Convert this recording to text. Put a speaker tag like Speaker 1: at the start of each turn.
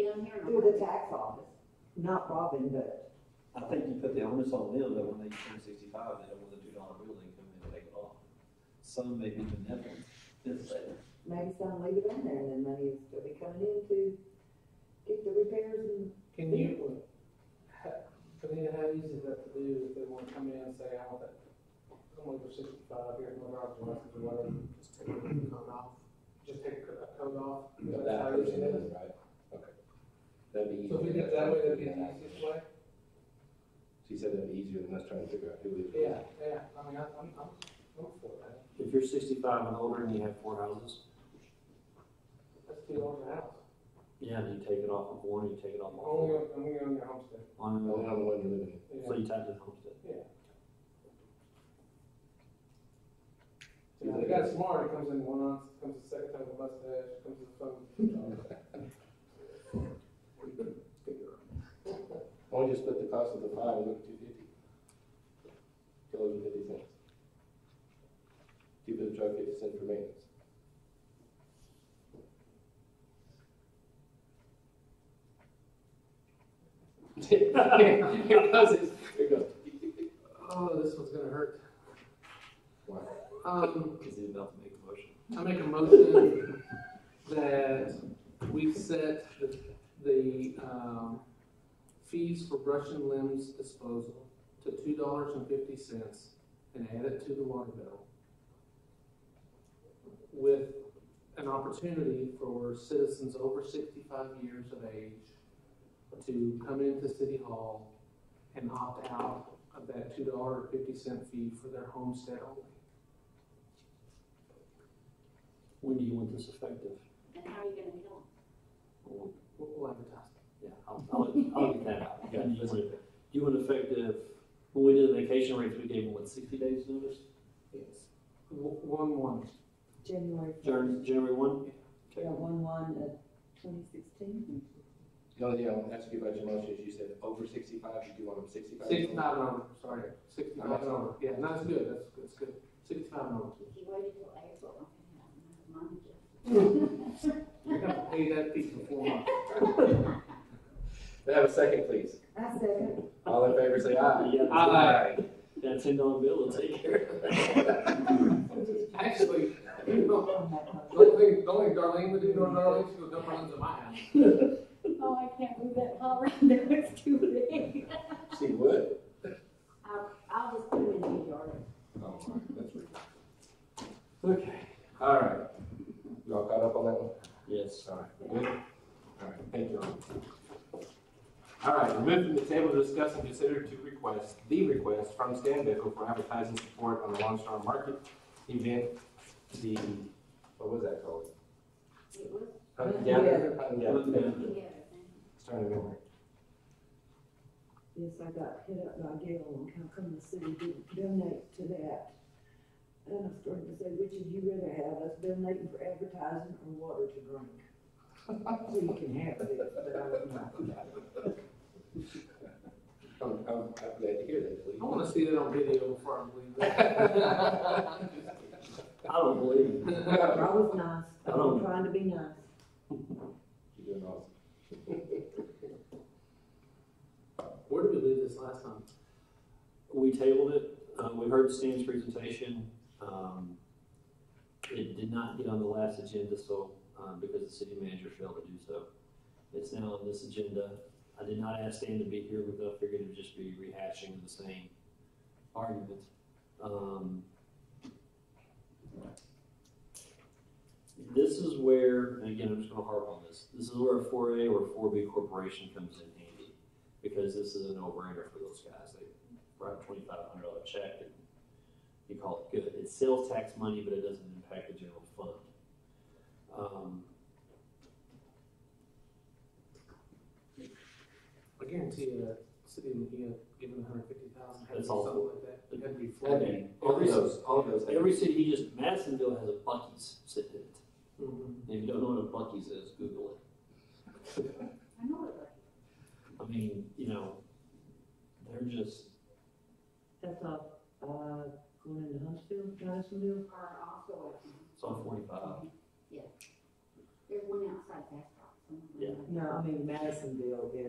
Speaker 1: Oh,
Speaker 2: not Robin, but
Speaker 3: I think you put the onus on them that when they turn sixty-five, they don't want the two dollar bill, they come in and take it off. Some may be benevolent, this later.
Speaker 2: maybe some leave it on there and then money is still be coming in to get the repairs and.
Speaker 4: Can you, Benita, how easy is that to do if they want to come in and say, I want that, I'm going for sixty-five, here's my driver's license or whatever, just take the cone off, just take a cone off? That's
Speaker 5: But that
Speaker 4: how easy
Speaker 5: person
Speaker 4: it is?
Speaker 5: is, right? Okay. That'd be easier.
Speaker 4: So if we did it that way, that'd be the easiest way?
Speaker 5: She said that'd be easier than us trying to figure out who is. who.
Speaker 4: Yeah, yeah, I mean, I- I'm, I'm, I'm for that.
Speaker 6: If you're sixty-five and older and you have four houses,
Speaker 4: That's too old for a house.
Speaker 6: yeah, you take it off of one, you take it off of
Speaker 5: Oh,
Speaker 4: Only,
Speaker 6: four.
Speaker 4: on- only on your homestead.
Speaker 6: On and
Speaker 5: Only
Speaker 6: on.
Speaker 5: on the one you're living
Speaker 6: So
Speaker 4: Yeah.
Speaker 6: you tied to the homestead.
Speaker 4: You know, the guy's smart, he comes in one ounce, comes the second time with a mustache, comes with a phone.
Speaker 5: in. Why don't you split the cost of the five and look at two fifty? Two dollars and fifty cents. Two for the truck, fifty cents for maintenance. Here it goes, here it goes.
Speaker 4: Oh, this one's gonna hurt.
Speaker 5: Why?
Speaker 4: Um,
Speaker 3: Cause he's about to make a motion.
Speaker 4: I make a motion that we set the, the, um, fees for brush and limbs disposal to two dollars and fifty cents and add it to the water bill. With an opportunity for citizens over sixty-five years of age to come into City Hall and opt out of that two dollar fifty cent fee for their homestead only.
Speaker 6: When do you want this effective?
Speaker 1: And how are you gonna kill
Speaker 6: Well,
Speaker 4: We'll- We'll advertise.
Speaker 6: Yeah, I'll, I'll, I'll get that out. When Do you want it- do you want effective, when we did the vacation rates, we gave them what, sixty days notice?
Speaker 4: Yes. W- One, one.
Speaker 2: January
Speaker 6: Jan- January one?
Speaker 2: Yeah, one, one, uh, twenty sixteen.
Speaker 5: The only thing I want to ask you about your motion is you said over sixty-five, you do want them sixty-five?
Speaker 4: Sixty-five and over, sorry, sixty-five and over, yeah, no, that's good, that's, that's good, sixty-five and over.
Speaker 1: him? If you waited till April, I can have my money just.
Speaker 4: You're gonna have to pay that fee for four months.
Speaker 5: May I have a second, please?
Speaker 2: I second.
Speaker 5: All in favor, say aye.
Speaker 6: Yeah.
Speaker 4: Aye.
Speaker 6: That ten dollar bill will take care of it.
Speaker 4: Actually, you know,
Speaker 2: on that
Speaker 4: the
Speaker 2: motion.
Speaker 4: only thing, the only Darlene would do, no, Darlene, she would dump her into my house.
Speaker 1: Oh, I can't move that hall around there, it's too big.
Speaker 5: She would.
Speaker 1: I'll, I'll just put it in the yard.
Speaker 5: Oh, my, that's weird.
Speaker 6: Okay.
Speaker 5: All right. You all caught up on that one?
Speaker 6: Yes.
Speaker 5: All right, we're good? All right, thank you. all. All right, remove from the table to discuss and consider to request, the request from Stan Bickle for advertising support on the Lone Star Market event, the, what was that called?
Speaker 1: It was,
Speaker 5: Hunting
Speaker 2: Hunting
Speaker 5: Gathering?
Speaker 6: Yeah.
Speaker 5: Hunting Gathering.
Speaker 1: yeah,
Speaker 5: It's trying to remember.
Speaker 2: Yes, I got hit up by Gail on how come the city didn't donate to that. And I started to say, which would you rather have, us donating for advertising or water to drink? So you can have it, but I would not.
Speaker 5: I'm, I'm, I'm glad to hear that,
Speaker 4: I
Speaker 5: please.
Speaker 4: wanna see that on video before I believe that.
Speaker 6: I don't believe it.
Speaker 2: I was nice, I was trying to be nice.
Speaker 5: You're doing awesome.
Speaker 4: Where did we leave this last time?
Speaker 6: We tabled it, uh, we heard Stan's presentation, um, it did not get on the last agenda, so, um, because the city manager failed to do so. It's now on this agenda, I did not ask Stan to be here, because I figured it'd just be rehashing the same argument. Um, This is where, and again, I'm just gonna harp on this, this is where a four A or four B corporation comes in handy, because this is a no-brainer for those guys, they write a twenty-five hundred dollar check and you call it good. It's sales tax money, but it doesn't impact the general fund. Um,
Speaker 4: I guarantee you, that city of Mahia giving hundred fifty thousand, had to be
Speaker 6: That's all.
Speaker 4: something like that, it had to be
Speaker 6: I
Speaker 4: flooded.
Speaker 6: mean,
Speaker 5: All of
Speaker 6: every,
Speaker 5: those, all of those. have-
Speaker 6: every city, he just, Madisonville has a Bucky's sitting in it.
Speaker 4: Mhm.
Speaker 6: And if you don't know what a Bucky's is, Google it.
Speaker 1: I know it, right?
Speaker 6: I mean, you know, they're just,
Speaker 2: That's all, uh, going into Huntsville, Madisonville,
Speaker 1: Or also, um,
Speaker 6: it's on forty-five.
Speaker 1: yeah. There's one outside that house.
Speaker 6: Yeah.
Speaker 2: no, I mean Madisonville is